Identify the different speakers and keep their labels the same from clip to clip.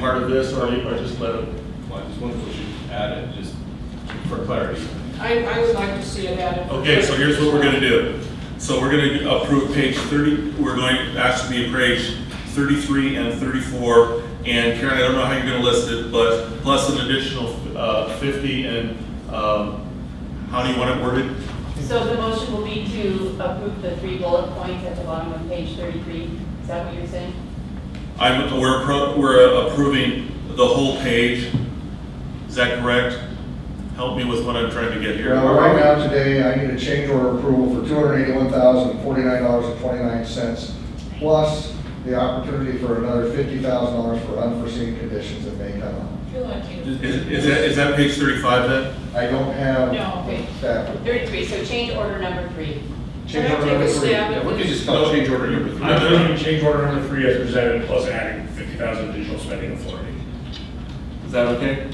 Speaker 1: part of this, or you- or just let it?
Speaker 2: Well, I just wanted to add it, just for clarity.
Speaker 3: I, I would like to see it added.
Speaker 1: Okay, so here's what we're gonna do. So we're gonna approve page thirty, we're going to ask to be appraised thirty-three and thirty-four. And Karen, I don't know how you're gonna list it, but plus an additional, uh, fifty and, um, how do you want it worded?
Speaker 4: So the motion will be to approve the three bullet points at the bottom of page 33. Is that what you're saying?
Speaker 1: I'm, we're, appro- we're approving the whole page. Is that correct? Help me with what I'm trying to get here.
Speaker 5: Well, right now, today, I need a change order approval for two hundred eighty-one thousand, forty-nine dollars and twenty-nine cents, plus the opportunity for another fifty thousand dollars for unforeseen conditions that may come up.
Speaker 4: You're lucky.
Speaker 1: Is, is that, is that page thirty-five then?
Speaker 5: I don't have
Speaker 4: No, okay.
Speaker 5: that.
Speaker 4: 33, so change order number three.
Speaker 3: Can
Speaker 5: Change
Speaker 3: I
Speaker 5: order
Speaker 3: take a
Speaker 5: number three.
Speaker 3: stab at
Speaker 2: We could
Speaker 3: this?
Speaker 2: just call it change order number
Speaker 6: I'm
Speaker 2: three.
Speaker 6: voting change order number three as presented, plus adding fifty thousand additional spending authority.
Speaker 1: Is that okay?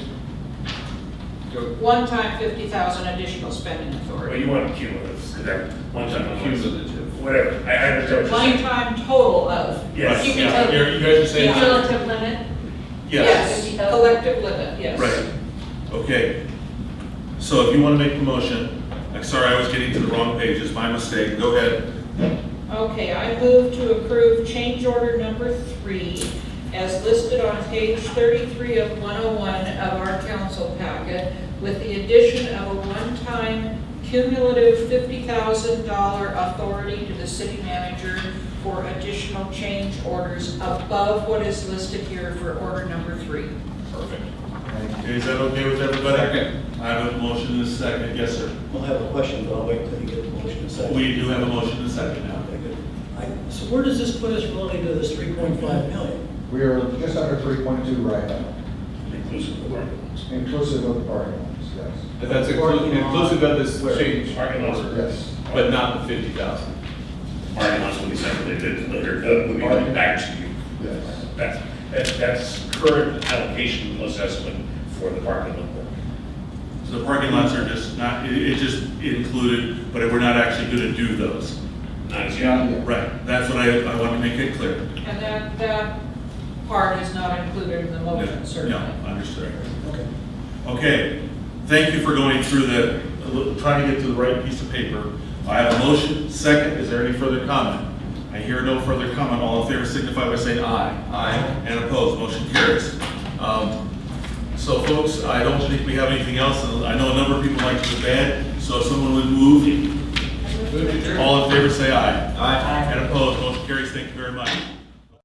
Speaker 3: One-time fifty thousand additional spending
Speaker 6: Well,
Speaker 3: authority.
Speaker 6: you want cumulative, because that one time
Speaker 2: Cumulative.
Speaker 6: cumulative, whatever, I, I understand. what you're saying.
Speaker 3: One-time total of.
Speaker 6: Yes.
Speaker 1: Right,
Speaker 3: You
Speaker 1: yeah,
Speaker 3: can
Speaker 1: you're-
Speaker 3: tell,
Speaker 1: You guys are saying.
Speaker 4: Cumulative limit?
Speaker 3: yes,
Speaker 4: $50,000.
Speaker 3: collective limit, yes.
Speaker 1: Right, okay. So if you want to make the motion, I'm sorry, I was getting to the wrong page, it's my mistake, go ahead.
Speaker 3: Okay, I move to approve change order number three as listed on page 33 of 101 of our council packet with the addition of a one-time cumulative $50,000 authority to the city manager for additional change orders above what is listed here for order number three.
Speaker 2: Perfect.
Speaker 1: Okay, Is that okay with everybody?
Speaker 2: Second.
Speaker 1: I have a motion and a second, yes, sir.
Speaker 7: We'll have a question, but I'll wait until you get the motion in a second.
Speaker 1: We do have a motion and a second now.
Speaker 7: Okay, good. I- So where does this put us relative to this 3.5 million?
Speaker 5: We are just under three point two right now,
Speaker 6: Inclusive of the
Speaker 5: inclusive of the parking lots, yes.
Speaker 2: But that's inclu- inclusive of this change
Speaker 6: Parking lots.
Speaker 2: order,
Speaker 5: Yes.
Speaker 2: But not the fifty thousand.
Speaker 6: parking lots will be separated later, uh, will be coming back to you.
Speaker 5: Yes.
Speaker 6: That's, that- that's current allocation plus estimate for the parking lot.
Speaker 1: So the parking lots are just not, it, it just included, but we're not actually going to do those.
Speaker 6: Not as yet.
Speaker 5: Yeah.
Speaker 1: Right, that's what I, I want to make it clear.
Speaker 3: And that, that part is not included in the
Speaker 1: Yeah,
Speaker 3: motion, certainly.
Speaker 1: Yeah, understood.
Speaker 7: Okay.
Speaker 1: Okay, thank you for going through the, trying to get to the right piece of paper. I have a motion, second, is there any further comment? I hear no further comment, all in favor signify by saying aye. Aye. And opposed, motion carries. Um, So folks, I don't think we have anything else, and I know a number of people like to bed, so if someone would move, all in favor say aye. Aye. And opposed, motion carries, thank you very much.